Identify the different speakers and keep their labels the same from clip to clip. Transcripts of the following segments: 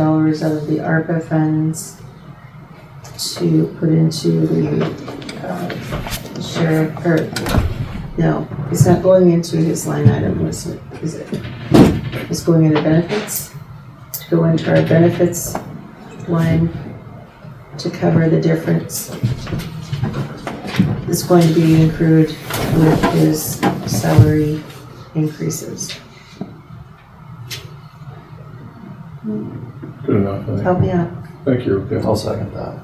Speaker 1: dollars of the ARPA funds to put into the, uh, sheriff, or, no, it's not going into his line item, was it, is it? It's going into benefits, to go into our benefits line to cover the difference. It's going to be accrued with his salary increases.
Speaker 2: Good enough, I think.
Speaker 1: Help me out.
Speaker 2: Thank you, okay.
Speaker 3: I'll second that.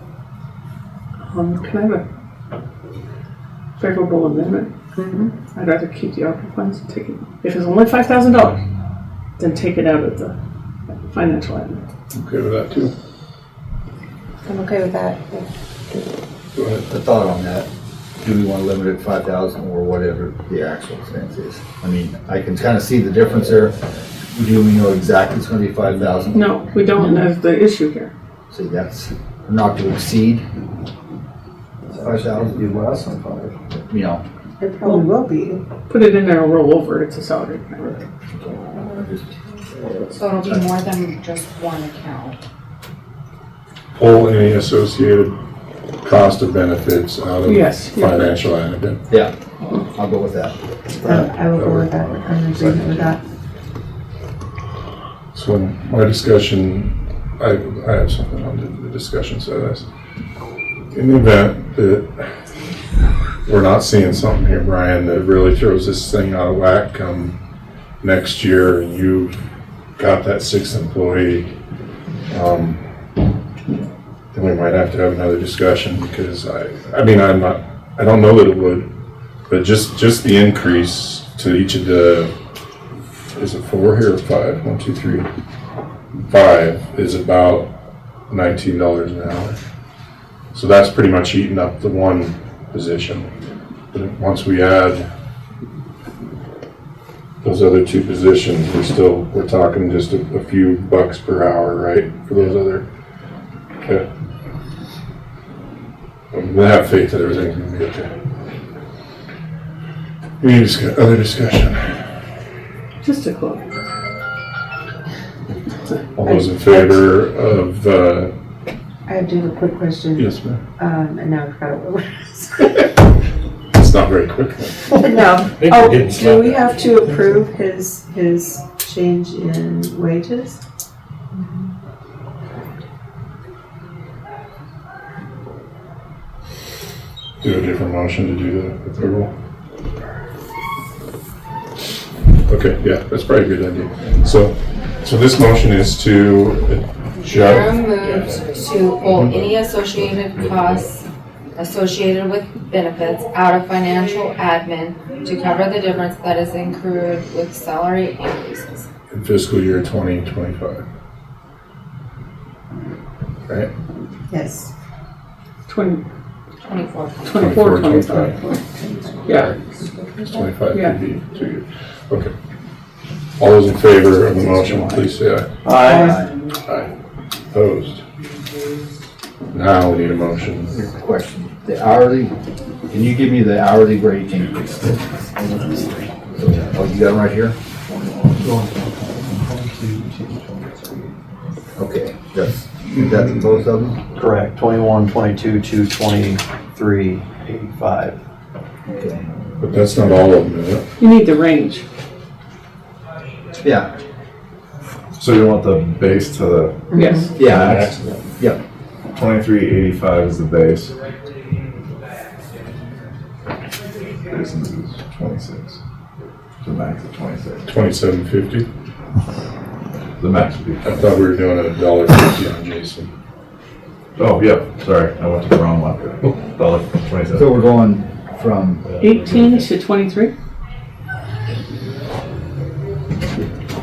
Speaker 4: Um, can I have a favorable amendment?
Speaker 1: Mhm.
Speaker 4: I'd rather keep the ARPA funds and take it, if it's only five thousand dollars, then take it out of the financial admin.
Speaker 2: Okay with that too.
Speaker 1: I'm okay with that.
Speaker 2: Go ahead.
Speaker 5: A thought on that, do we want to limit it five thousand or whatever the actual expense is? I mean, I can kind of see the difference there. Do we know exactly it's going to be five thousand?
Speaker 4: No, we don't, that's the issue here.
Speaker 5: So that's not to exceed five thousand,
Speaker 3: Be less than five.
Speaker 5: you know.
Speaker 1: It probably will be.
Speaker 4: Put it in there and roll over, it's a salary.
Speaker 6: So it'll be more than just one account.
Speaker 2: Pull any associated cost of benefits out of
Speaker 4: Yes, yeah.
Speaker 2: financial item.
Speaker 5: Yeah, I'll go with that.
Speaker 1: Um, I will go with that. I'm in agreement with that.
Speaker 2: So in my discussion, I, I have something on the- the discussion side of this. In the event that we're not seeing something here, Brian, that really throws this thing out of whack come next year and you've got that sixth employee, um, then we might have to have another discussion because I, I mean, I'm not, I don't know that it would, but just, just the increase to each of the is it four here or five? One, two, three. Five is about nineteen dollars an hour. So that's pretty much eating up the one position. But if- once we add those other two positions, we're still, we're talking just a, a few bucks per hour, right? For those other, okay. I'm gonna have faith that everything's gonna be okay. Any discuss, other discussion?
Speaker 4: Just a quote.
Speaker 2: All those in favor of, uh,
Speaker 1: I do have a quick question.
Speaker 2: yes, ma'am.
Speaker 1: Um, and now I forgot what we're.
Speaker 2: It's not very quick.
Speaker 1: No.
Speaker 3: think
Speaker 1: Oh,
Speaker 3: we did
Speaker 1: do we have to approve his, his change in wages?
Speaker 2: Do a different motion to do the approval. Okay, yeah, that's probably a good idea. So, so this motion is to
Speaker 6: Chair
Speaker 2: adjust,
Speaker 6: moves to pull any associated costs associated with benefits out of financial admin to cover the difference that is incurred with salary increases.
Speaker 2: in fiscal year twenty twenty-five. Right?
Speaker 1: Yes.
Speaker 4: Twenty,
Speaker 6: Twenty-four.
Speaker 4: twenty-four,
Speaker 2: 24,
Speaker 4: twenty-five, yeah.
Speaker 2: It's twenty-five
Speaker 4: Yeah.
Speaker 2: could be two years. Okay. All those in favor of the motion, please say aye.
Speaker 5: Uh,
Speaker 3: Aye.
Speaker 2: Aye. Opposed? Now we need a motion.
Speaker 5: Question, the hourly, can you give me the hourly rate increase? Oh, you got them right here? Okay, that's, that's both of them?
Speaker 3: Correct, twenty-one, twenty-two, two twenty-three, eighty-five.
Speaker 5: Okay.
Speaker 2: But that's not all of them, is it?
Speaker 4: You need the range.
Speaker 5: Yeah,
Speaker 7: So you want the base to the
Speaker 4: Yes,
Speaker 5: yeah, that's- yeah,
Speaker 7: twenty-three eighty-five is the base. Base is twenty-six. The max is twenty-six.
Speaker 2: Twenty-seven fifty?
Speaker 7: The max would be.
Speaker 2: I thought we were doing a dollar fifty on Jason.
Speaker 7: Oh, yeah, sorry, I went to the wrong one. Dollar
Speaker 5: so
Speaker 7: twenty-seven.
Speaker 5: we're going from,
Speaker 4: eighteen to twenty-three?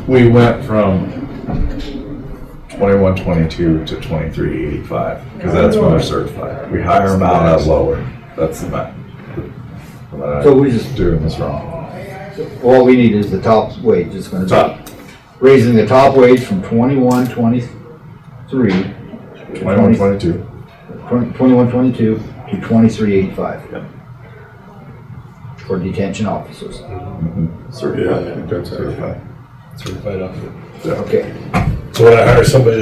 Speaker 7: We went from twenty-one, twenty-two to twenty-three eighty-five, because that's when they're certified. We hire them out at lower, that's the max.
Speaker 5: So we just-
Speaker 7: Doing this wrong.
Speaker 5: all we need is the top wage, it's gonna
Speaker 7: Top.
Speaker 5: be, raising the top wage from twenty-one, twenty-three,
Speaker 7: Twenty-one, twenty-two.
Speaker 5: twenty-one, twenty-two to twenty-three eighty-five.
Speaker 7: Yep.
Speaker 5: For detention officers,
Speaker 2: Yeah, I think that's it.
Speaker 7: Certified.
Speaker 5: okay.
Speaker 8: So when I hire somebody